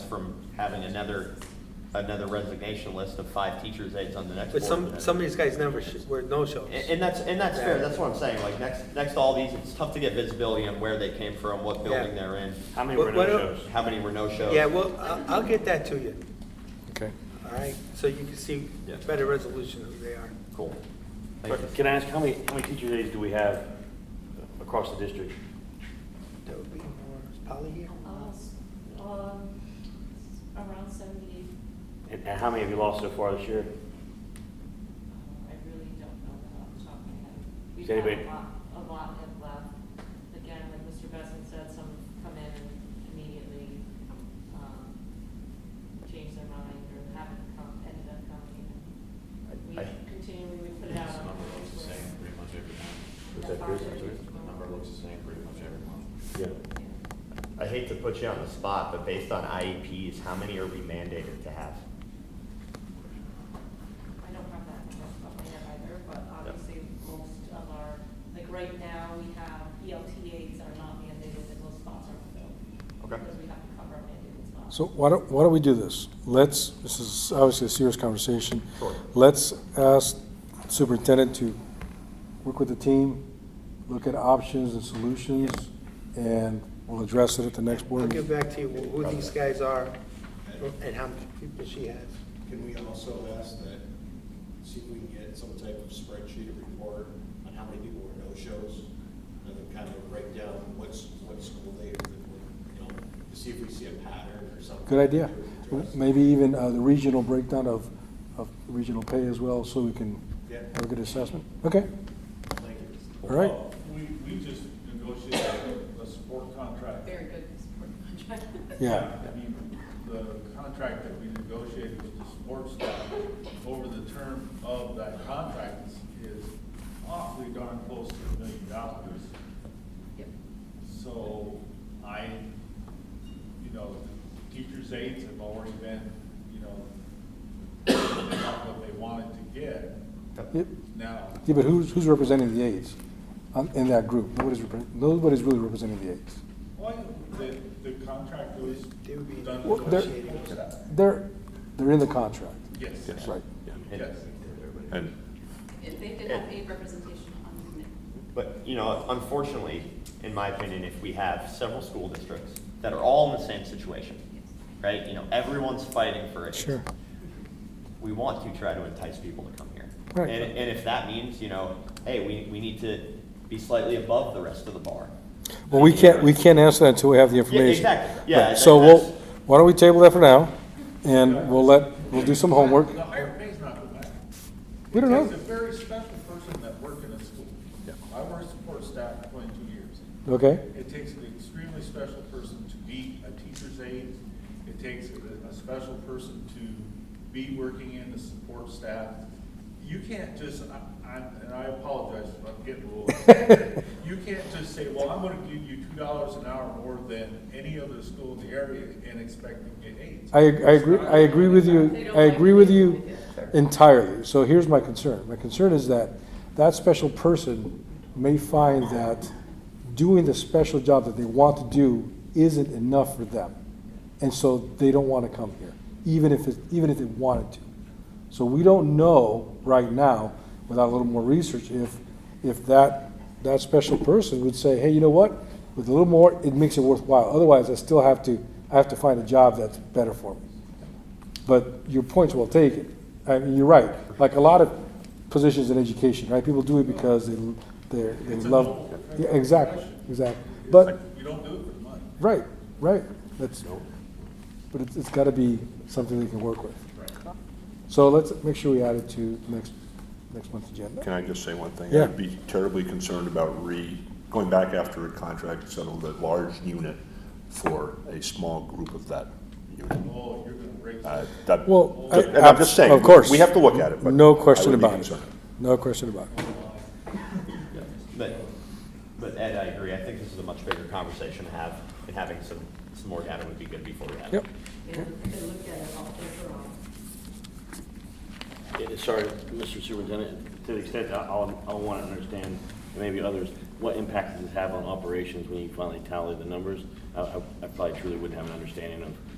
from having another, another resignation list of five teachers' aides on the next board. But some, meeting. some of these guys never, sh- were no-shows. And, and that's, and that's fair, that's what I'm saying, like, next, next to all these, it's tough to get visibility on where they came from, what building Yeah. they're in, How many What- were what no el- shows? how many were no-shows. Yeah, well, I- I'll get that to you, Okay. all right? So you can see Yeah. better resolution who they are. Cool. Thank you. But Can I ask, how many, how many teacher aides do we have across the district? That would be more, is Polly here? Uh, s- um, Around seventy-eight, And and how many have you lost so far this year? uh, I really don't know that off the top of my head. We've Does had anybody- a lot, a lot have left. Again, like Mr. Besson said, some come in and immediately, um, change their mind or haven't come, ended up coming. And We I- continually, we put it out on. Number looks the same pretty much every Was month. that good? The Number looks the same pretty much every month. Yeah. Yeah. I hate to put you on the spot, but based on IEPs, how many are we mandated to have? I don't have that number off the top of my head either, but obviously, most of our, like, right now, we have E ELTAs are not mandated, and those spots are filled. Okay. Because we have to cover our mandated spots. So why don't, why don't we do this? Let's, this is obviously a serious conversation. Sure. Let's ask superintendent to work with the team, look at options and solutions, and we'll address it at the next I'll board. get meeting. back to you who these guys are and how many people she has. Can we also ask that, see if we can get some type of spreadsheet or report on how many people were no-shows? And then kind of break down what's, what school they, you know, to see if we see a pattern or something. Good idea. to address. Maybe even uh, the regional breakdown of, of regional pay as well, so we can Yeah. have a good assessment. Okay, Thank you. all right. Well, Uh, We, we just negotiated a support contract. Very good support contract. Yeah. I mean, the contract that we negotiated with the sports staff over the term of that contract is- is awfully darn close to a million dollars. Yep. So I, you know, teachers' aides have already been, you know, they got what they wanted to get. Yeah, Now, yeah, but who's, who's representing the aides um, in that group? Nobody's, repre- nobody's really representing the aides. why, the, the contract was They would be done Well, with the they're- negotiating. sports staff. They're, they're in the contract. Yes. That's right. Yes. And If they did have a representation on the committee. But, you know, unfortunately, in my opinion, if we have several school districts that are all in the same situation, right? You know, everyone's fighting for it. Sure. We want to try to entice people to come here. Right. And, and if that means, you know, hey, we, we need to be slightly above the rest of the bar. Well, we can't, we can't answer that until we have the information. exactly. Yeah, Right, So that- we'll, that's- why don't we table that for now, and we'll let, we'll do some homework. The higher pay's not the matter. We don't know. It's a very special person that worked in a school. I worked support staff for twenty-two years. Okay, It takes an extremely special person to be a teacher's aide. It takes a, a special person to be working in the support staff. You can't just, I, I, and I apologize if I'm getting a little. You can't just say, well, I'm gonna give you two dollars an hour more than any other school in the area and expect to get aides. I, I agree, I agree with you, I agree with you entirely. So here's my concern. My concern is that that special person may find that doing the special job that they want to do isn't enough for them. And so they don't want to come here, even if it, even if they wanted to. So we don't know right now, without a little more research, if, if that, that special person would say, hey, you know what? With a little more, it makes it worthwhile. Otherwise, I still have to, I have to find a job that's better for me. But your point's well taken. I mean, you're right. Like a lot of positions in education, right? People do it because they, they're, they It's a love. noble Yeah, exactly, profession. exactly. But, You don't do it for money. right, right. That's, but it's, it's gotta be something they can work with. So let's make sure we add it to next, next month's agenda. Can I just say one thing? Yeah. I'd be terribly concerned about re, going back after a contract, settled a large unit for a small group of that unit. Oh, you're gonna break. Uh, that- Well, I- And I'm just saying. of course. We have to look at it, but. No question I would be about it. concerned. No question about it. But, but Ed, I agree, I think this is a much bigger conversation to have, and having some, some more data would be good before we have it. Yep. And they looked at it all overall. Yeah, Sorry, Mr. Superintendent, to the extent that I'll, I'll want to understand, and maybe others, what impact does this have on operations when you finally tally the numbers? I, I I probably truly wouldn't have an understanding of